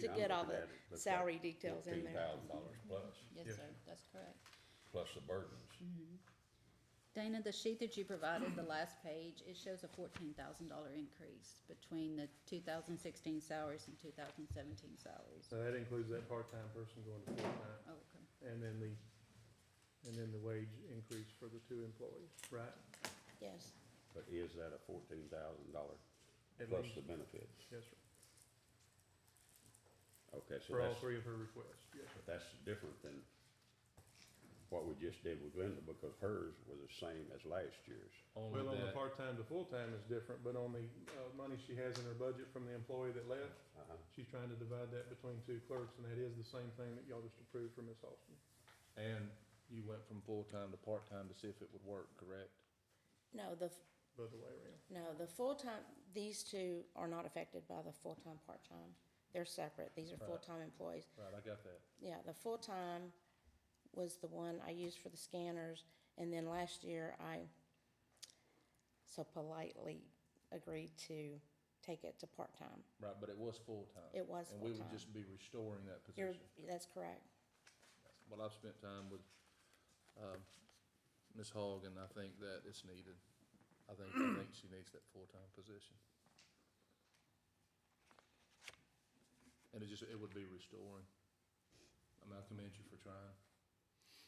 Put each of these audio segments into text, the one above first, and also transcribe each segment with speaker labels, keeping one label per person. Speaker 1: to get all the salary details in
Speaker 2: Fifteen
Speaker 1: there.
Speaker 2: thousand dollars plus,
Speaker 3: Yes,
Speaker 4: Yeah.
Speaker 3: sir, that's correct. Mm-hmm.
Speaker 2: plus the burdens.
Speaker 3: Dana, the sheet that you provided, the last page, it shows a fourteen thousand dollar increase between the two thousand sixteen salaries and two thousand seventeen salaries.
Speaker 4: So that includes that part-time person going to full-time,
Speaker 3: Oh, Okay,
Speaker 4: and then the, and then the wage increase for the two employees, right?
Speaker 1: Yes,
Speaker 2: But is that a fourteen thousand dollar
Speaker 4: At
Speaker 2: plus
Speaker 4: least.
Speaker 2: the benefits?
Speaker 4: Yes, sir.
Speaker 2: Okay, so
Speaker 4: For all
Speaker 2: that's,
Speaker 4: three of her requests, yes, sir.
Speaker 2: but that's different than what we just did with Linda, because hers was the same as last year's.
Speaker 5: Only
Speaker 4: Well, on the
Speaker 5: that,
Speaker 4: part-time to full-time is different, but on the, uh, money she has in her budget from the employee that left,
Speaker 2: Uh-huh.
Speaker 4: she's trying to divide that between two clerks, and that is the same thing that y'all just approved for Ms. Austin.
Speaker 5: and you went from full-time to part-time to see if it would work, correct?
Speaker 1: no, the,
Speaker 4: the other way around.
Speaker 1: no, the full-time, these two are not affected by the full-time, part-time. They're separate. These are
Speaker 5: Right.
Speaker 1: full-time employees.
Speaker 5: Right, I got that.
Speaker 1: Yeah, the full-time was the one I used for the scanners, and then last year I so politely agreed to take it to part-time.
Speaker 5: Right, but it was full-time.
Speaker 1: It was
Speaker 5: And we would
Speaker 1: full-time.
Speaker 5: just be restoring that
Speaker 1: You're,
Speaker 5: position.
Speaker 1: that's correct.
Speaker 5: Well, I've spent time with, um, Ms. Hogg, and I think that it's needed. I think, I think she needs that full-time position. And it just, it would be restoring. I mean, I commend you for trying.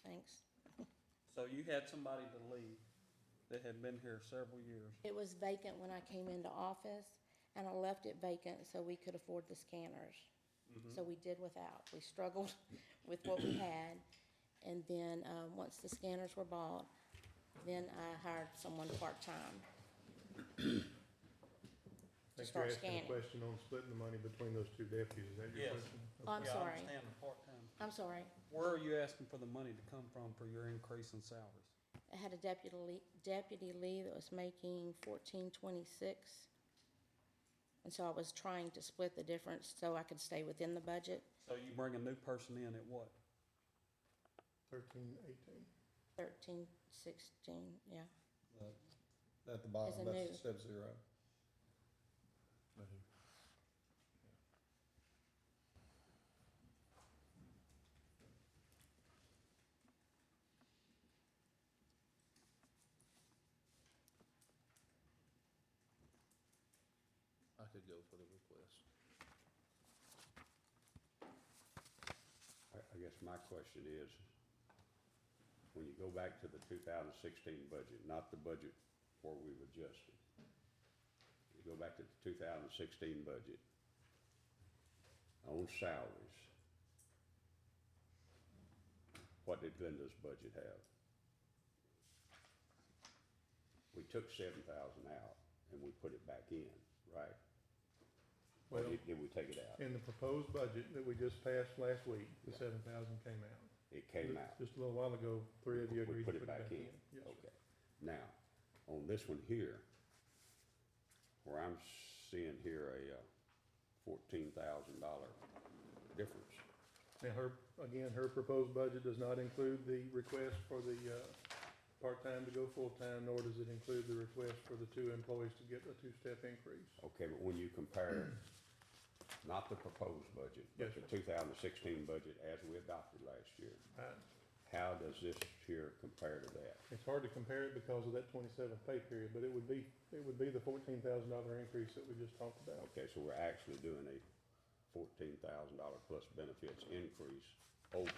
Speaker 1: Thanks.
Speaker 6: So you had somebody to leave that had been here several years.
Speaker 1: It was vacant when I came into office, and I left it vacant so we could afford the scanners.
Speaker 6: Mm-hmm.
Speaker 1: So we did without. We struggled with what we had. And then, um, once the scanners were bought, then I hired someone part-time.
Speaker 4: I think
Speaker 1: start
Speaker 4: you're asking
Speaker 1: scanning.
Speaker 4: a question on splitting the money between those two deputies, is that your
Speaker 6: Yes.
Speaker 4: question?
Speaker 1: Oh, I'm
Speaker 6: Yeah,
Speaker 1: sorry.
Speaker 6: I understand the part-time.
Speaker 1: I'm sorry.
Speaker 6: Where are you asking for the money to come from for your increase in salaries?
Speaker 1: I had a deputy, le- deputy Lee that was making fourteen twenty-six. And so I was trying to split the difference so I could stay within the budget,
Speaker 6: So you bring a new person in at what?
Speaker 4: Thirteen, eighteen.
Speaker 1: thirteen sixteen, yeah.
Speaker 7: At the bottom,
Speaker 1: As a new.
Speaker 7: that's step zero.
Speaker 5: I could go for the request.
Speaker 2: I, I guess my question is, when you go back to the two thousand sixteen budget, not the budget where we've adjusted. You go back to the two thousand sixteen budget on salaries. What did Glenda's budget have? We took seven thousand out and we put it back in, right? Or
Speaker 4: Well-
Speaker 2: did, did we take it out?
Speaker 4: In the proposed budget that we just passed last week, the seven thousand came out.
Speaker 2: It came out.
Speaker 4: Just a little while ago, three of you
Speaker 2: We
Speaker 4: agreed to
Speaker 2: put it back in, Oh.
Speaker 4: Yes, sir.
Speaker 2: okay. Now, on this one here, where I'm seeing here a uh, fourteen thousand dollar difference.
Speaker 4: Now, her, again, her proposed budget does not include the request for the, uh, part-time to go full-time, nor does it include the request for the two employees to get a two-step increase.
Speaker 2: Okay, but when you compare, not the proposed budget, but
Speaker 4: Yes,
Speaker 2: the
Speaker 4: sir.
Speaker 2: two thousand sixteen budget as we adopted last year,
Speaker 4: I-
Speaker 2: how does this here compare to that?
Speaker 4: It's hard to compare it because of that twenty-seventh pay period, but it would be, it would be the fourteen thousand dollar increase that we just talked about.
Speaker 2: Okay, so we're actually doing a fourteen thousand dollar plus benefits increase over,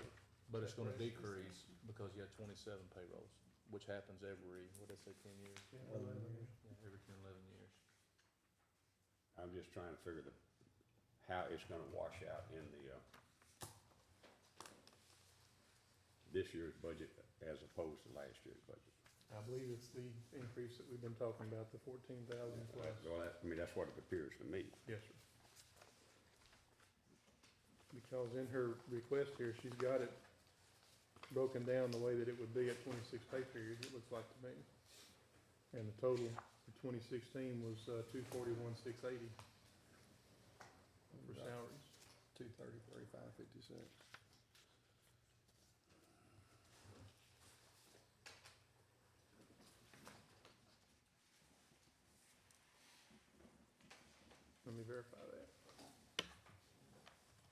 Speaker 5: But it's gonna decrease because you had twenty-seven payrolls, which happens every, what did I say, ten years? Yeah, Every ten, eleven years.
Speaker 2: I'm just trying to figure the, how it's gonna wash out in the, uh, this year's budget as opposed to last year's budget.
Speaker 4: I believe it's the increase that we've been talking about, the fourteen thousand plus.
Speaker 2: Well, that, I mean, that's what it appears to me.
Speaker 4: Yes, sir. Because in her request here, she's got it broken down the way that it would be at twenty-six pay periods, it looks like to me. And the total for twenty sixteen was, uh, two forty-one, six eighty for salaries.
Speaker 7: Two thirty, thirty-five, fifty-six.